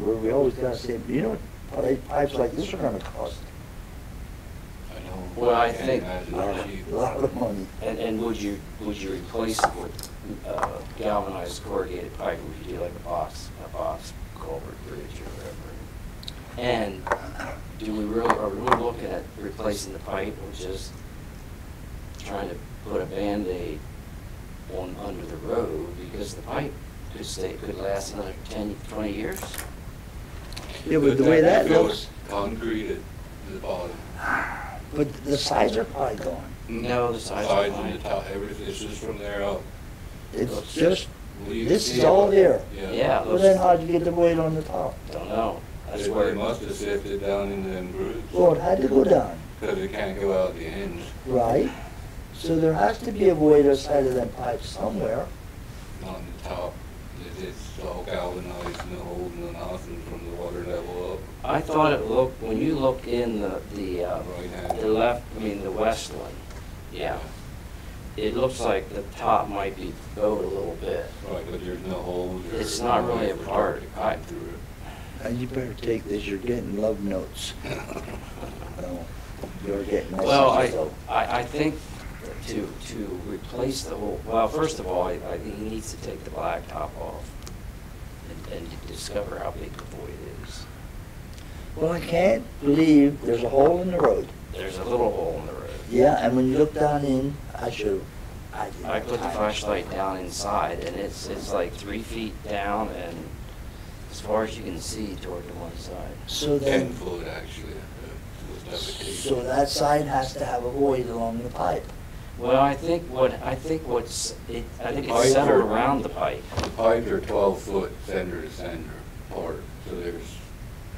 where we always gotta say, you know, what pipes like this are gonna cost Well, I think- a lot of- a lot of money. And, and would you, would you replace it with uh, galvanized corrugated pipe, or would you do like a box, a box culvert bridge or whatever? And do we really, are we really looking at replacing the pipe or just trying to put a Band-Aid on, under the road? Because the pipe could stay, could last another 10, 20 years? Yeah, but the way that If it looks, was Concrete at the bottom. but the sides are probably gone. No, the sides are Sides and the fine. top, everything, it's just from there up. It's just, Well, you This see is it. all there. Yeah. well then how'd you get the weight on the top? Don't know. That's They where. they must have sifted down in them grooves. Well, it had to go down, Because it can't go out the ends. right? So there has to be a weight outside of that pipe somewhere. on the top. It- It's all galvanized and holding nothing from the water level I thought it looked, when you look in the, the, uh, up, right hand. the left, I mean, the west one, yeah, it looks like the top might be bowed a little bit. Right, but there's no holes or. It's not really a part. Right through And you better take this, you're getting love notes. No, You're getting Well, I, messages though. I, I think to, to replace the whole, well, first of all, I, I think he needs to take the black top off and, and discover how big the void is. Well, I can't believe there's a hole in the road. There's a little hole in the road. Yeah, and when you look down in, I should, I didn't. I put the time. flashlight down inside, and it's, it's like three feet down and as far as you can see toward the one side. So it. Ten then, foot actually. uh, was so deprecated. that side has to have a void along the pipe. Well, I think what, I think what's, it, I think Pipe it's centered or- around the pipe. The pipes are twelve foot center to center apart, so there's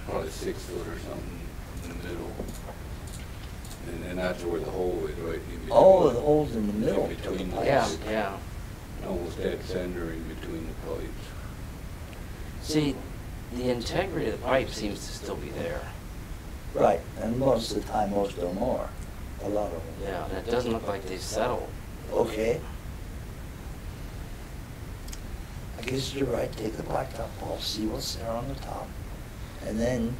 probably six foot or something in the middle. And then that's where the hole is, right? in between. Oh, the hole's in the middle of the Between the- Yeah, pipes. yeah. Almost dead center in between the pipes. See, the integrity of the pipe seems to still be there. Right, and most of the time, most of them are, a lot of them. Yeah, and it doesn't look like they've settled. Okay. I guess you're right, take the blacktop off, see what's there on the top. And then,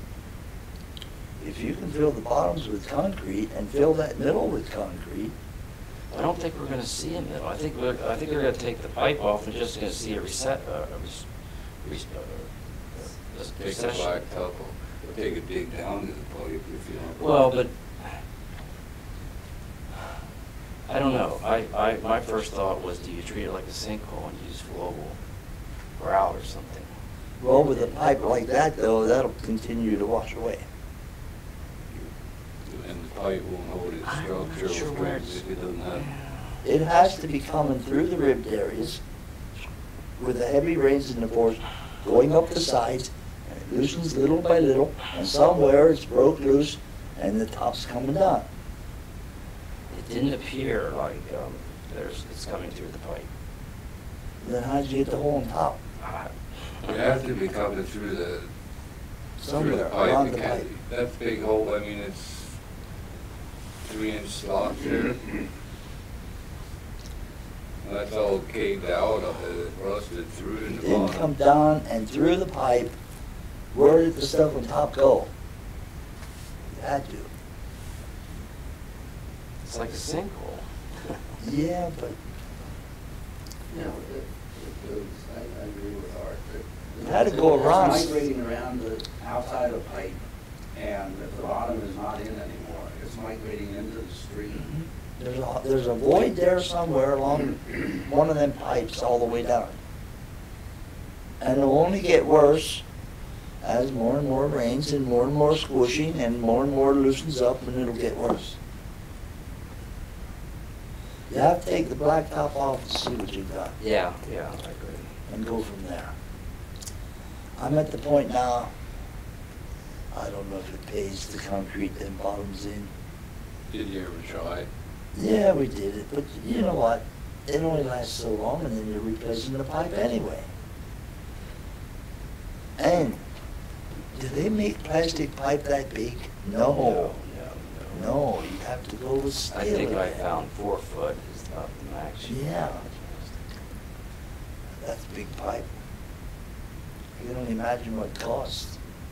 if you can fill the bottoms with concrete and fill that middle with concrete, I don't think we're gonna see a middle. I think we're, I think we're gonna take the pipe off and just gonna see a reset, uh, a res- res- uh, a Take the recession. black top, or take a dig down to the pipe if you want. Well, but, I don't know, I, I, my first thought was, do you treat it like a sinkhole and use global grout or something? Well, with a pipe like that, though, that'll continue to wash away. And the pipe won't hold its I'm not structural sure where strength it's- if it doesn't have. It has to be coming through the ribbed areas with the heavy rains in the forest, going up the sides, and it loosens little by little, and somewhere it's broke loose, and the top's coming down. It didn't appear like, um, there's, it's coming through the pipe. Then how'd you get the hole on top? Ah. It has to be coming through the, through the Somewhere pipe. around It the can't- pipe. That big hole, I mean, it's three inch slot there. That's all caved out, of it rusted through in It the didn't come down bottom. and through the pipe. Where did the stuff on top go? It had to. It's like a sinkhole. Yeah, but No, it, it goes, I, I agree with Art, but. It had to go around. It's migrating around the outside of the pipe, and if the bottom is not in anymore, it's migrating into the street. There's a, there's a void there somewhere along one of them pipes all the way down. And it'll only get worse as more and more rains and more and more squishing and more and more loosens up and it'll get worse. You have to take the blacktop off and see what you've got Yeah, yeah, I agree. and go from there. I'm at the point now, I don't know if it pays to concrete them bottoms in. Did you ever try? Yeah, we did it, but you know what? It only lasts so long, and then you're replacing the pipe anyway. And do they make plastic pipe that big? No, No, no. no, you have to go with steel. I think I again. found four foot is about the max. you can Yeah. go. That's big pipe. You can only imagine what it costs.